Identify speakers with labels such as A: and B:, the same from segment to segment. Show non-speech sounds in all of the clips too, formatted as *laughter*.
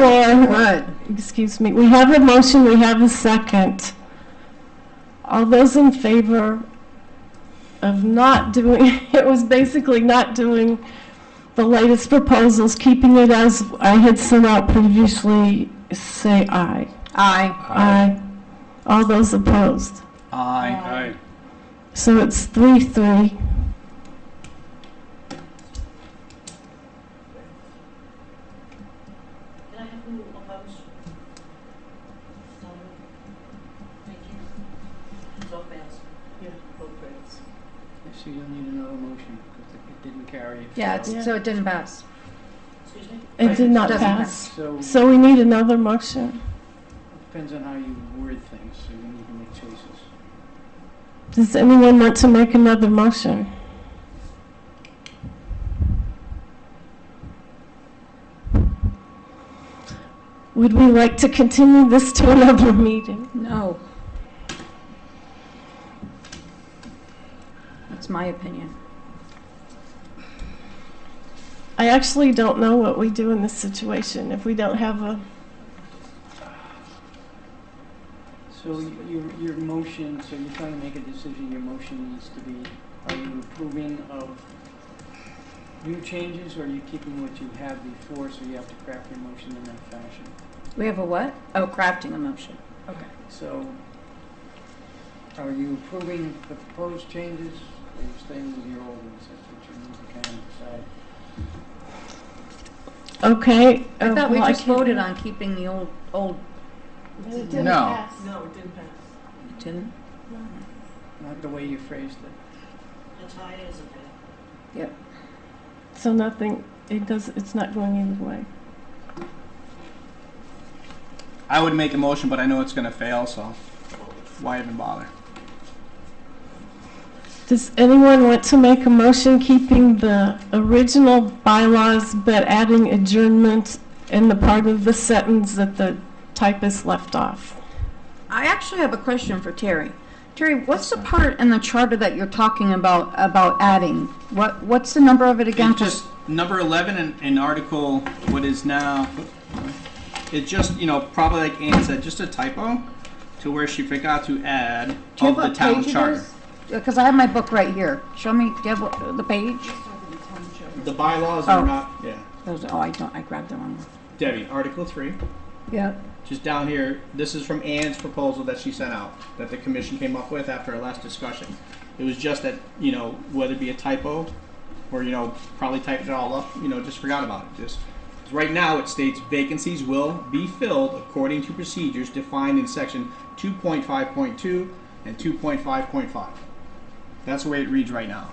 A: floor, uh, excuse me, we have a motion, we have a second. All those in favor of not doing, *laughs* it was basically not doing the latest proposals, keeping it as I had sent out previously, say aye.
B: Aye.
A: Aye. All those opposed.
B: Aye.
C: Aye.
A: So it's three, three.
C: Can I have who opposed? Sorry. Thank you. So fails.
D: Yeah, vote fails. So you'll need another motion, because it didn't carry. it
B: Yeah,
A: Yeah.
B: it's- so it didn't pass.
C: Excuse me?
A: It did not
B: Doesn't
A: pass.
D: So, it
A: So we need another motion.
D: depends on how you word things, so you need to make choices.
A: Does anyone want to make another motion? Would we like to continue this to another meeting?
B: No. That's my opinion.
A: I actually don't know what we do in this situation if we don't have a,
D: So y- your, your motion, so you're trying to make a decision, your motion needs to be, are you approving of new changes, or are you keeping what you have before, so you have to craft your motion in that fashion?
B: We have a what? Oh, crafting a motion. Okay.
D: So are you approving the proposed changes, or are you staying with your old ones? That's what you need to kind of decide.
A: okay.
B: I thought we
A: uh, well,
B: just
A: can't-
B: voted on keeping the old, old,
A: It didn't
E: No.
A: pass.
C: No, it didn't pass.
B: it didn't?
D: Not the way you phrased it.
C: The tie isn't there.
A: So nothing, it does, it's not going either way.
E: I would make a motion, but I know it's gonna fail, so why even bother?
A: Does anyone want to make a motion keeping the original bylaws but adding adjournment in the part of the sentence that the typist left off?
B: I actually have a question for Terry. Terry, what's the part in the charter that you're talking about, about adding? What, what's the number of it again?
E: It's just number eleven in, in article, what is now, it just, you know, probably like Ann said, just a typo to where she forgot to add
B: Do you have
E: of the
B: what
E: town
B: page it
E: charter.
B: is? Because I have my book right here. Show me, do you have what- the page?
E: The bylaws
B: Oh.
E: are not, yeah,
B: Those, oh, I don't, I grabbed the wrong one.
E: Debbie, article three,
B: Yeah,
E: just down here, this is from Ann's proposal that she sent out, that the commission came up with after our last discussion. It was just that, you know, whether it be a typo, or, you know, probably typed it all up, you know, just forgot about it, just. 'cause Right now, it states vacancies will be filled according to procedures defined in section two point five point two and two point five point five. That's the way it reads right now.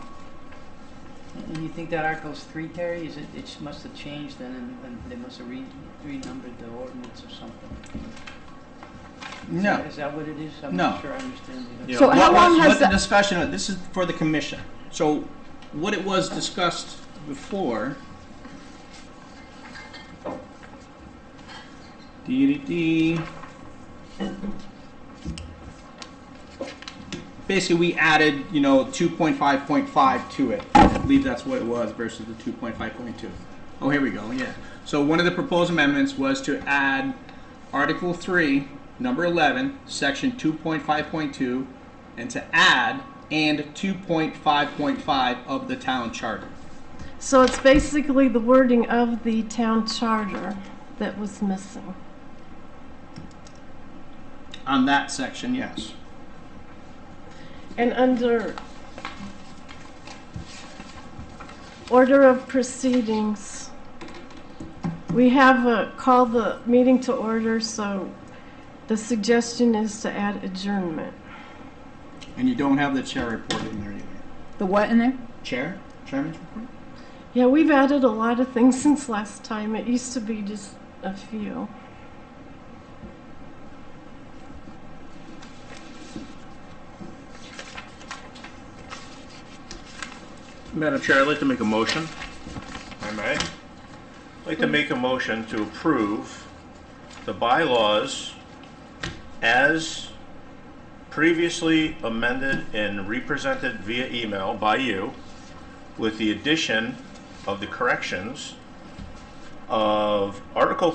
D: And you think that Article's three, Terry, is it, it sh- must have changed then, and, and they must have re, renumbered the ordinance or something? Is
E: No.
D: that- Is that what it is? I'm
E: No.
D: not sure I understand. the-
B: So how
E: what
B: long
E: was-
B: has
E: what the
B: that-
E: discussion? This is for the commission. So what it was discussed before. Dee-dee-dee. Basically, we added, you know, 2.5.5 to it. I believe that's what it was versus the 2.5.2. Oh, here we go. Yeah. So one of the proposed amendments was to add Article 3, number 11, section 2.5.2, and to add and 2.5.5 of the town charter.
A: So it's basically the wording of the town charter that was missing.
E: On that section, yes.
A: And under order of proceedings, we have a, call the meeting to order, so the suggestion is to add adjournment.
E: And you don't have the chair report in there either.
B: the what in there?
E: Chair? Chairman's report?
A: Yeah, we've added a lot of things since last time. It used to be just a few.
F: Madam Chair, I'd like to make a motion. If I may. I'd like to make a motion to approve the bylaws as previously amended and represented via email by you with the addition of the corrections of Article